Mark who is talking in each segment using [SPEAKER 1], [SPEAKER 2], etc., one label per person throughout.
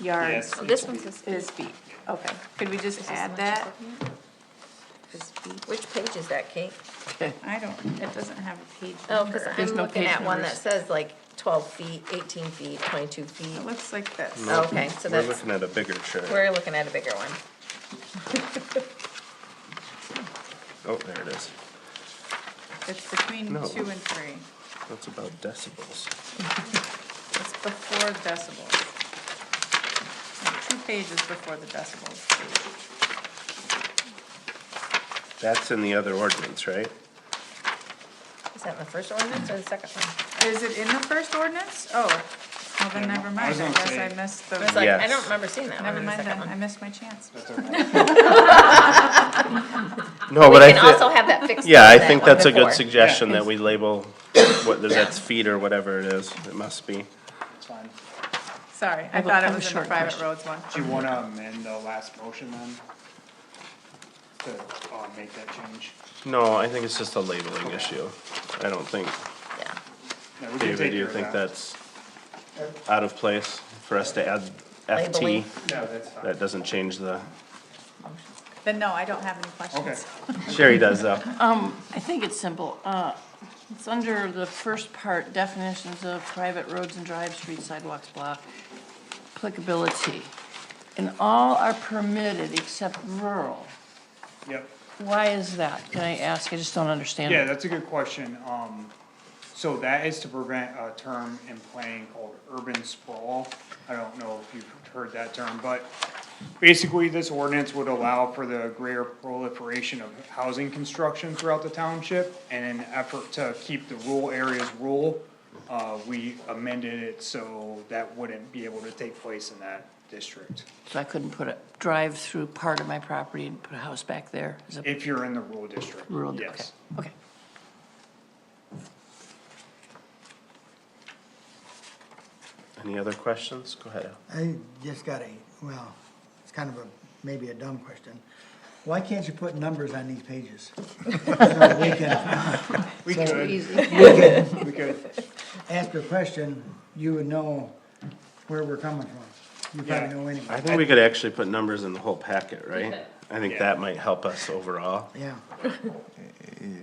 [SPEAKER 1] yards
[SPEAKER 2] Yes.
[SPEAKER 3] This one says
[SPEAKER 1] is
[SPEAKER 3] feet.
[SPEAKER 1] feet. Okay, could we just add that? Is feet?
[SPEAKER 3] Which page is that, Kate?
[SPEAKER 1] I don't, it doesn't have a page
[SPEAKER 3] Oh, because
[SPEAKER 1] number. There's
[SPEAKER 3] I'm
[SPEAKER 1] no
[SPEAKER 3] looking
[SPEAKER 1] page
[SPEAKER 3] at one that
[SPEAKER 1] numbers.
[SPEAKER 3] says like twelve feet, eighteen feet, twenty-two
[SPEAKER 1] It
[SPEAKER 3] feet.
[SPEAKER 1] looks like this.
[SPEAKER 3] No. Okay, so
[SPEAKER 4] We're
[SPEAKER 3] that's-
[SPEAKER 4] looking at a bigger chart.
[SPEAKER 3] We're looking at a bigger one.
[SPEAKER 4] Oh, there it is.
[SPEAKER 1] It's between
[SPEAKER 4] No.
[SPEAKER 1] two and three.
[SPEAKER 4] That's about decibels.
[SPEAKER 1] It's before decibels. Like, Two pages before the decibels.
[SPEAKER 4] That's in the other ordinance, right?
[SPEAKER 3] Is that in the first ordinance or the second one?
[SPEAKER 1] Is it in the first ordinance? Oh, well then
[SPEAKER 2] Yeah,
[SPEAKER 1] never
[SPEAKER 2] I
[SPEAKER 1] mind,
[SPEAKER 2] was
[SPEAKER 1] I
[SPEAKER 2] gonna
[SPEAKER 1] guess
[SPEAKER 2] say-
[SPEAKER 1] I missed
[SPEAKER 3] I was like,
[SPEAKER 1] the,
[SPEAKER 3] I
[SPEAKER 4] Yes.
[SPEAKER 3] don't remember seeing that one
[SPEAKER 1] never
[SPEAKER 3] in the
[SPEAKER 1] mind
[SPEAKER 3] second
[SPEAKER 1] then, I
[SPEAKER 3] one.
[SPEAKER 1] missed my chance.
[SPEAKER 2] That's okay.
[SPEAKER 4] No,
[SPEAKER 3] We
[SPEAKER 4] but I
[SPEAKER 3] can
[SPEAKER 4] think.
[SPEAKER 3] also have that fixed.
[SPEAKER 4] Yeah,
[SPEAKER 3] into
[SPEAKER 4] I
[SPEAKER 3] that
[SPEAKER 4] think
[SPEAKER 3] one
[SPEAKER 4] that's a
[SPEAKER 3] before.
[SPEAKER 4] good suggestion,
[SPEAKER 2] Yeah.
[SPEAKER 4] that we label whether that's feet or whatever it is, it must be.
[SPEAKER 2] It's fine.
[SPEAKER 1] Sorry, I
[SPEAKER 5] have a-
[SPEAKER 1] thought
[SPEAKER 5] I
[SPEAKER 1] it
[SPEAKER 5] have a
[SPEAKER 1] was in the
[SPEAKER 5] short
[SPEAKER 1] private
[SPEAKER 5] question.
[SPEAKER 1] roads one.
[SPEAKER 2] Do you wanna amend the last motion then? To, uh, make that change?
[SPEAKER 4] No, I think it's just a labeling issue. I don't think,
[SPEAKER 3] Yeah.
[SPEAKER 2] No, we can
[SPEAKER 4] David,
[SPEAKER 2] take
[SPEAKER 4] do you
[SPEAKER 2] care of
[SPEAKER 4] think
[SPEAKER 2] that.
[SPEAKER 4] that's out of place for us to add FT?
[SPEAKER 3] Labeling.
[SPEAKER 2] No, that's fine.
[SPEAKER 4] That doesn't change the,
[SPEAKER 1] Then no, I don't have any
[SPEAKER 2] Okay,
[SPEAKER 1] questions.
[SPEAKER 4] Sherry does though.
[SPEAKER 5] I think it's simple. Uh, It's under the first part, definitions of private roads and drive, street sidewalks, blah, applicability. And all are permitted except rural.
[SPEAKER 2] yep.
[SPEAKER 5] Why is that? Can I ask? I just don't understand.
[SPEAKER 2] Yeah,
[SPEAKER 5] it.
[SPEAKER 2] that's a good question. Um, so that is to prevent a term in planning called urban sprawl. I don't know if you've heard that term, but basically this ordinance would allow for the greater proliferation of housing construction throughout the township. And in an effort to keep the rural areas rural, uh, we amended it so that wouldn't be able to take place in that district.
[SPEAKER 5] So I couldn't put a drive through part of my property and put a house back there as a
[SPEAKER 2] If you're in the rural district,
[SPEAKER 5] rural, okay,
[SPEAKER 2] yes.
[SPEAKER 5] okay.
[SPEAKER 4] Any other questions? Go ahead. Al.
[SPEAKER 6] I just got a, well, it's kind of a, maybe a dumb question. Why can't you put numbers on these pages? So we can
[SPEAKER 2] We could, we could.
[SPEAKER 6] ask a question, you would know where we're coming from. You
[SPEAKER 2] Yeah.
[SPEAKER 6] probably know
[SPEAKER 4] I
[SPEAKER 6] anyway,
[SPEAKER 4] think we could actually put numbers in the whole packet, right? I think
[SPEAKER 2] Yeah.
[SPEAKER 4] that might help us overall.
[SPEAKER 6] yeah.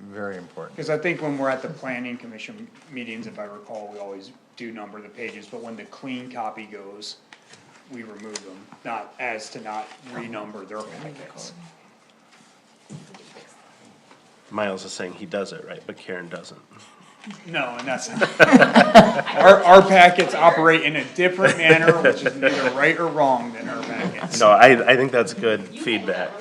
[SPEAKER 7] Very important.
[SPEAKER 2] Cause I think when we're at the planning commission meetings, if I recall, we always do number the pages, but when the clean copy goes, we remove them, not as to not renumber their packets.
[SPEAKER 4] Miles is saying he does it, right, but Karen doesn't.
[SPEAKER 2] No, and that's our, our packets operate in a different manner, which is neither right or wrong than our packets.
[SPEAKER 4] No, I, I think that's good feedback.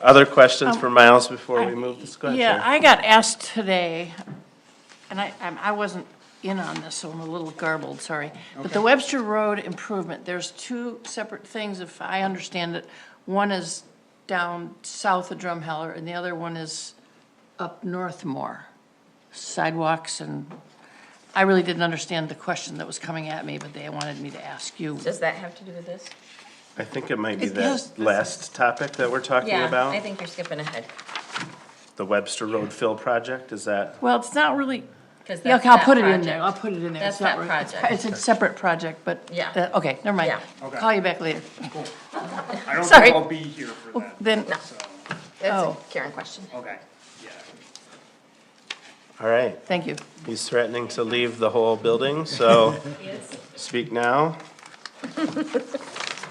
[SPEAKER 4] Other questions
[SPEAKER 3] Um,
[SPEAKER 4] for Miles before we move this question?
[SPEAKER 5] Yeah, I got asked today, and I, I'm- I wasn't in on this, so I'm a little garbled, sorry. But the Webster Road improvement, there's two separate things, if I understand it. One is down south of Drumheller, and the other one is up north more. Sidewalks and, I really didn't understand the question that was coming at me, but they wanted me to ask you.
[SPEAKER 3] Does that have to do with this?
[SPEAKER 4] I think it might be
[SPEAKER 5] It
[SPEAKER 4] that
[SPEAKER 5] has-
[SPEAKER 4] last topic that we're talking
[SPEAKER 3] Yeah, I
[SPEAKER 4] about,
[SPEAKER 3] think you're skipping ahead.
[SPEAKER 4] the Webster Road fill project, is that?
[SPEAKER 5] Well, it's not really,
[SPEAKER 3] 'cause
[SPEAKER 5] yeah,
[SPEAKER 3] that's
[SPEAKER 5] okay, I'll
[SPEAKER 3] that
[SPEAKER 5] put it in there,
[SPEAKER 3] project.
[SPEAKER 5] I'll put it in there.
[SPEAKER 3] That's
[SPEAKER 5] It's not
[SPEAKER 3] that
[SPEAKER 5] re- it's-
[SPEAKER 3] project.
[SPEAKER 5] It's a separate project, but,
[SPEAKER 3] Yeah.
[SPEAKER 5] uh, okay, never mind.
[SPEAKER 3] Yeah.
[SPEAKER 2] Okay.
[SPEAKER 5] Call you back later.
[SPEAKER 2] I don't
[SPEAKER 5] Sorry.
[SPEAKER 2] think I'll be here for that,
[SPEAKER 5] Then,
[SPEAKER 2] so,
[SPEAKER 3] That's a
[SPEAKER 5] Oh.
[SPEAKER 3] Karen question.
[SPEAKER 2] okay, yeah.
[SPEAKER 4] All right,
[SPEAKER 5] thank you.
[SPEAKER 4] he's threatening to leave the whole building, so speak now.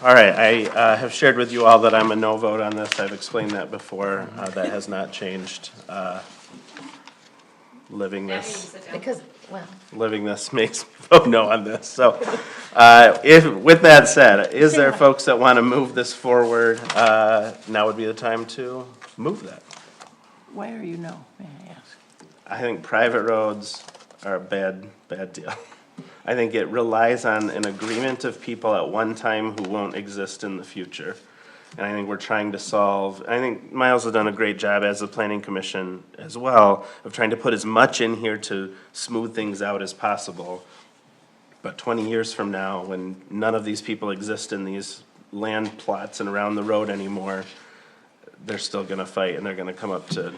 [SPEAKER 4] All right, I uh, have shared with you all that I'm a no vote on this. I've explained that before. Uh, That has not changed. Uh, Living this.
[SPEAKER 3] Because, well,
[SPEAKER 4] living this makes me vote no on this, so. Uh, if, with that said, is there folks that wanna move this forward, uh, now would be the time to move that.
[SPEAKER 5] Why are you no, may I ask?
[SPEAKER 4] I think private roads are a bad, bad deal. I think it relies on an agreement of people at one time who won't exist in the future. And I think we're trying to solve, I think Miles has done a great job as the planning commission as well, of trying to put as much in here to smooth things out as possible. But twenty years from now, when none of these people exist in these land plots and around the road anymore, they're still gonna fight and they're gonna come up to,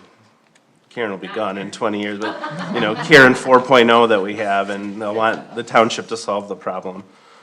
[SPEAKER 4] Karen will be gone in twenty oh years, but, you know, Karen four that we have, and they'll want the township to solve the problem.